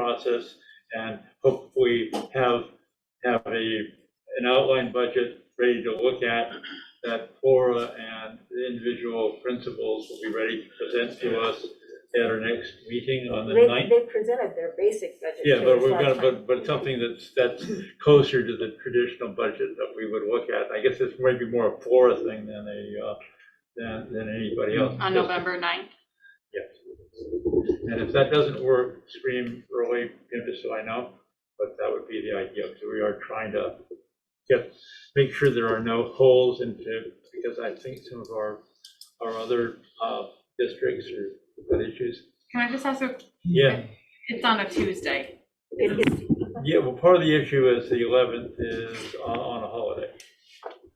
process and hopefully have, have a, an outline budget ready to look at that Flora and the individual principals will be ready to present to us at our next meeting on the They, ninth. they presented their basic budget to Yeah, but us we're last gonna, time. but, but something that's, that's closer to the traditional budget that we would look at. I guess it's maybe more a Flora thing than a, uh, than, than anybody else. on November 9th. Yes. And if that doesn't work, scream early, you know, just so I know, but that would be the idea. So we are trying to get, make sure there are no holes into, because I think some of our, our other uh, districts are, got issues. Can I just ask a, Yeah, it's on a Tuesday. It is- yeah, well, part of the issue is the 11th is on, on a holiday.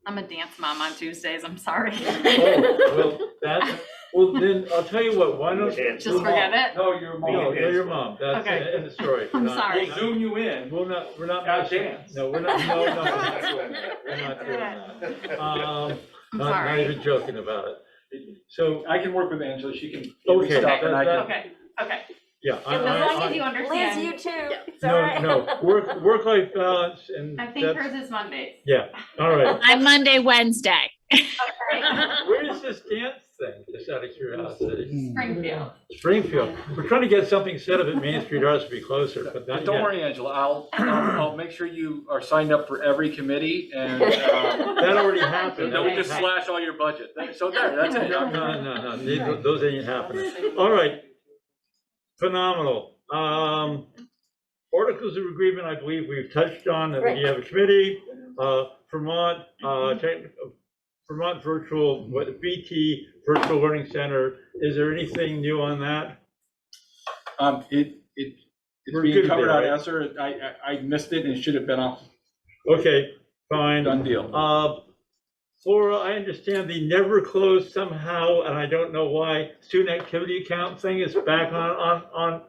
I'm a dance mom on Tuesdays, I'm sorry. Oh, well, that, well, then, I'll tell you what, why don't. Just your mom- forget it? No, your mom, no, your mom, that's the Okay. end of story. Uh, I'm Not- sorry. We'll zoom you in. We're not, we're not. Got a chance. No, we're not, no, no, no, we're not doing that. Um, I'm not, not sorry. even joking about it. So, I can work with Angela, she can. Okay. Stop and I can- Okay, okay. yeah. I- I- As long I- as you Liz, understand. you too. It's all No, right. no, work, work-life balance and I think that's, hers is Mondays. yeah, all right. I'm Monday, Wednesday. Where is this dance thing, just out of curiosity? Springfield. Springfield. We're trying to get something set up at Main Street Arts to be closer, but not But don't yet. worry, Angela, I'll, I'll I'll make sure you are signed up for every committee and, uh, That already happened. then we just slash all your budget. So there, that's it. No, no, no, no, they- those ain't happening. All right. Phenomenal. Um, articles of agreement, I believe we've touched on, that we have a committee, uh, Vermont, uh, tech- Vermont Virtual, what, VT Virtual Learning Center. Is there anything new on that? Um, it, it, We're it's good being covered there, out right? answer. I, I, I missed it and it should have been off. Okay, fine. Done deal. Uh, Flora, I understand the never closed somehow, and I don't know why, student activity account thing is back on, on, on.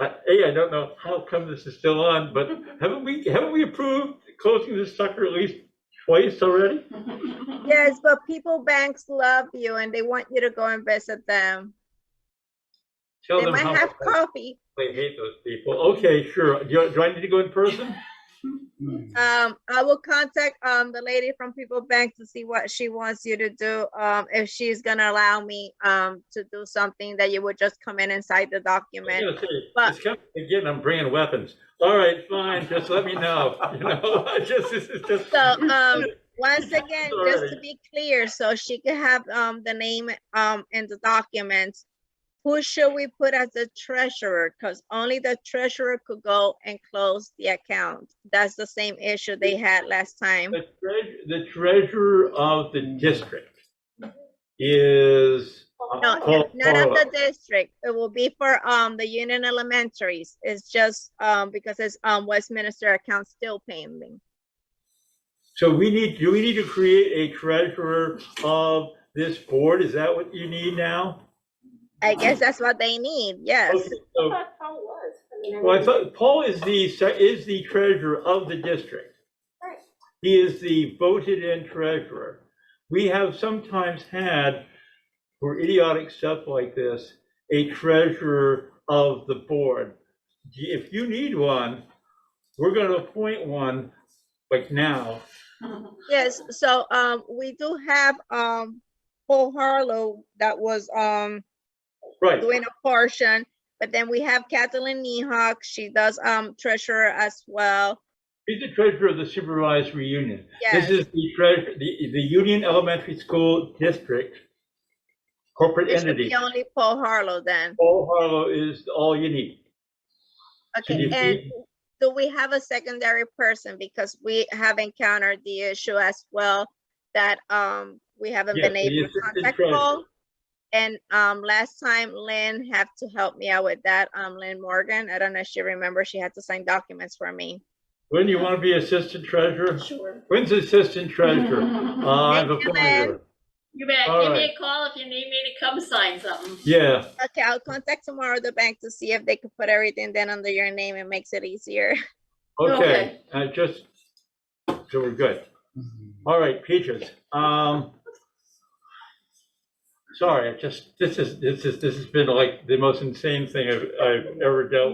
I- A, I don't know how come this is still on, but haven't we, haven't we approved closing this sucker at least twice already? Yes, but people banks love you and they want you to go and visit them. Tell They them might how have coffee. I hate those people. Okay, sure. Do you- do I need to go in person? Hmm. Um, I will contact, um, the lady from People Bank to see what she wants you to do. Um, if she's gonna allow me, um, to do something that you would just come in and cite the I document. gotta say, But- it's kind of- Again, I'm bringing weapons. All right, fine, just let me know, you know, I just, this is just. So, um, once again, just Alrighty. to be clear, so she could have, um, the name, um, in the documents. Who should we put as the treasurer? Cause only the treasurer could go and close the account. That's the same issue they had last time. The treasurer, the treasurer of the district is. uh, No, Paul- Not of the Paula. district. It will be for, um, the union elementaries. It's just, um, because it's, um, Westminster account still pending. So we need, do we need to create a treasurer of this board? Is that what you need now? I guess that's what they need, yes. Okay, so- That's how it was. I mean, I Well, I mean- thought Paul is the, se- is the treasurer of the district. Right. He is the voted-in treasurer. We have sometimes had, for idiotic stuff like this, a treasurer of the board. If you need one, we're gonna appoint one, like now. Yes, so, um, we do have, um, Paul Harlow that was, um, Right, doing a portion. But then we have Kathleen Nehawk, she does, um, treasurer as well. he's the treasurer of the supervised reunion. This Yes, is the treasurer, the, the Union Elementary School District corporate it should entity. be only Paul Harlow then. Paul Oh, Harlow is all you need. Okay, you and see- do we have a secondary person? Because we have encountered the issue as well that, um, we haven't Yes, been the able to assistant contact treasurer. Paul. And, um, last time Lynn had to help me out with that, um, Lynn Morgan, I don't know if she remembers, she had to sign documents for me. When you want to be assistant treasurer? Sure. When's assistant treasurer? Uh, I've Thank you, appointed her. You bet. All Give me right. a call if you need me to come sign something. Yeah, Okay, I'll contact tomorrow the bank to see if they could put everything then under your name. It makes it easier. okay, Okay. uh, just, so we're good. All right, Peaches, um, sorry, I just, this is, this is, this has been like the most insane thing I've, I've ever dealt with.